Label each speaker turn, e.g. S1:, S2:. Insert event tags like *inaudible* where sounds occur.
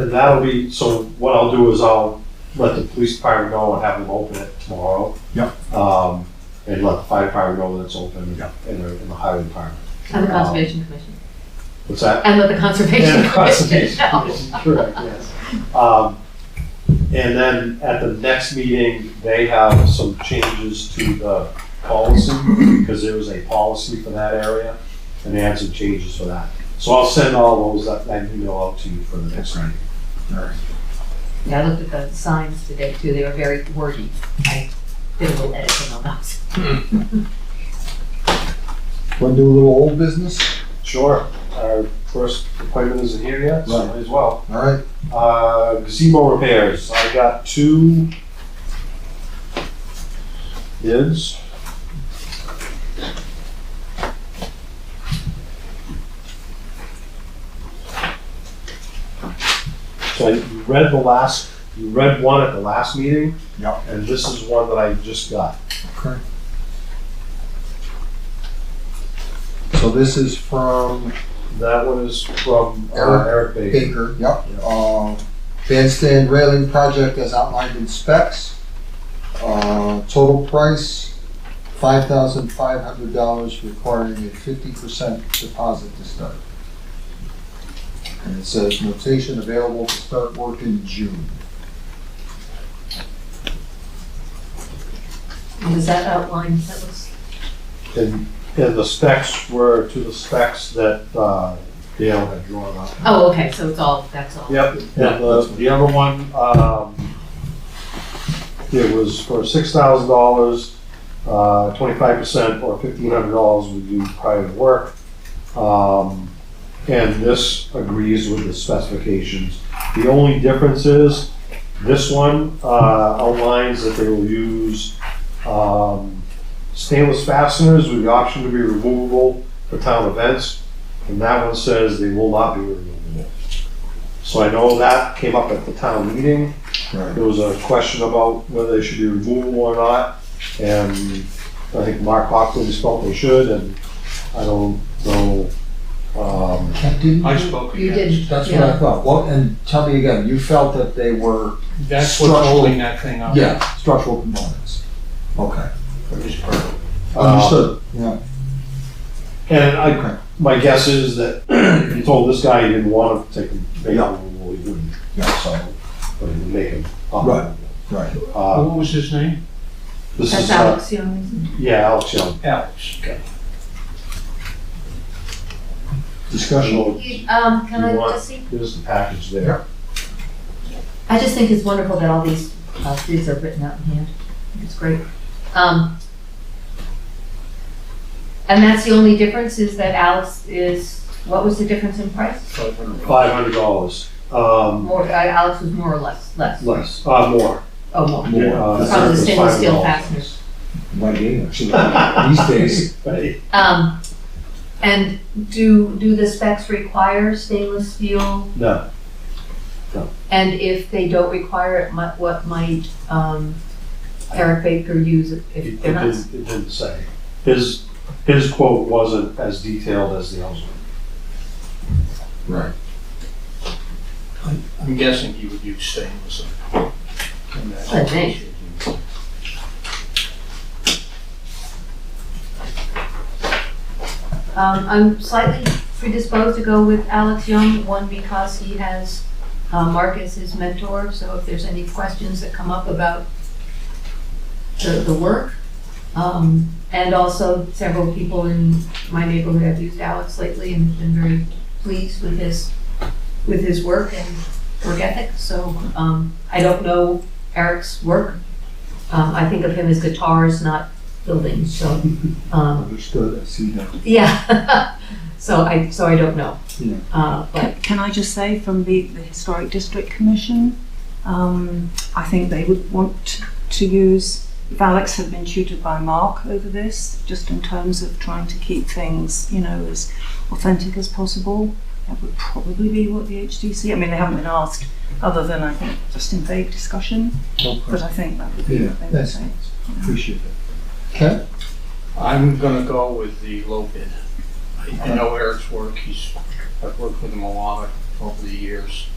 S1: And that'll be, so what I'll do is I'll let the police department know and have them open it tomorrow.
S2: Yep.
S1: Um, and let the fire department know that it's open and
S2: Yep.
S1: the, and the highway department.
S3: And the Conservation Commission.
S1: What's
S3: *laughs*
S1: that?
S3: And let the Conservation
S1: And
S3: Commission
S1: conservation *laughs*
S3: know.
S1: commission, Correct, yes. Um, and then at the next meeting, they have some changes to the policy, because there was a policy for that area, and they had some changes for that. So I'll send all those, that, that email out to you for the next meeting.
S2: Alright.
S3: Yeah, I looked at the signs today too, they were very wordy. I did a little editing on those.
S2: Want to do a little old business?
S1: Sure, our first appointment isn't here yet, so
S2: Right.
S1: might as well.
S2: All right,
S1: Uh, gazebo repairs, I got two bids. So you read the last, you read one at the last meeting?
S2: Yep.
S1: And this is one that I just got.
S2: okay. So this is from
S1: That one is from uh,
S2: Eric
S1: Eric Baker.
S2: Baker, yep.
S1: Yeah.
S2: Uh, Bandstand railing project as outlined in specs. Uh, Total price, five thousand five hundred dollars, requiring a fifty percent deposit to start. And it says notation available to start work in June.
S3: Was that outlined, that was,
S1: And, and the specs were to the specs that uh, Dale had drawn up.
S3: oh, okay, so it's all, that's all.
S1: Yep, and the, the other one, um, it was for six thousand dollars, uh, twenty-five percent or fifteen hundred dollars would do prior to work. Um, and this agrees with the specifications. The only difference is, this one, uh, outlines that they will use, um, stainless fasteners with the option to be removable for town events. And that one says they will not be removable. So I know that came up at the town meeting.
S2: Right.
S1: There was a question about whether they should be removable or not. And I think Mark Hopkins felt they should, and I don't know. um,
S2: Didn't
S4: I
S2: you-
S4: spoke
S3: You
S4: again.
S3: did,
S2: That's what I
S3: yeah.
S2: thought. Well, and tell me again, you felt that they were,
S4: That's what's holding that thing up.
S2: yeah, structural components. Okay.
S1: uh,
S2: Understood. Yeah.
S1: And
S2: Okay.
S1: I, my guess is that *clears throat* if you told this guy he didn't want to take them, make them removable, he wouldn't.
S2: Yeah.
S1: So, but he would make him. um,
S2: Right. Right.
S1: Uh,
S4: What was his name?
S1: This
S3: That's
S1: is, uh,
S3: Alex Young, isn't it?
S1: yeah, Alex Young.
S4: Alex.
S2: Discussion.
S3: You- Um, can
S1: You
S3: I
S1: want-
S3: just see?
S1: Here's the package there.
S3: I just think it's wonderful that all these uh, streets are written out in hand. I think It's great. Um, And that's the only difference is that Alex is, what was the difference in price?
S1: Five hundred dollars. Um,
S3: More, uh, Alex was more or less, less,
S1: less, uh, more.
S3: oh, more.
S2: More.
S1: Uh,
S3: Probably the
S1: it's
S3: stainless
S1: $500.
S3: steel fasteners.
S2: My game, actually, *laughs* these days.
S1: Right.
S3: Um, And do, do the specs require stainless steel?
S1: No,
S3: And if they don't require it, mi- what might um, Eric Baker use if-
S1: it it
S3: if they're
S1: didn't,
S3: not?
S1: it didn't say. His, his quote wasn't as detailed as the other one.
S2: Right.
S4: I'm guessing he would use stainless. And that's-
S3: I think. Um, I'm slightly predisposed to go with Alex Young, one because he has uh, Mark as his mentor, so if there's any questions that come up about the, the work. Um, and also several people in my neighborhood have used Alex lately and been very pleased with his, with his work and work ethic, so, um, I don't know Eric's work. Um, I think of him as guitars, not buildings, so, um,
S2: Understood. I see that.
S3: yeah. *laughs* So I, so I don't know.
S2: Yeah.
S3: Uh, but,
S5: Can- Can I just say, from the, the Historic District Commission, um, I think they would want to use, if Alex had been tutored by Mark over this, just in terms of trying to keep things, you know, as authentic as possible. That would probably be what the HDC, I mean, they haven't been asked, other than I think just in vague discussion, but
S2: Okay.
S5: I think that would be
S2: Yeah,
S5: what they would
S2: that's
S5: say.
S2: nice. Appreciate it. Okay.
S4: I'm gonna go with the low bid. I- I know Eric's work, he's, I've worked with him a lot over the years.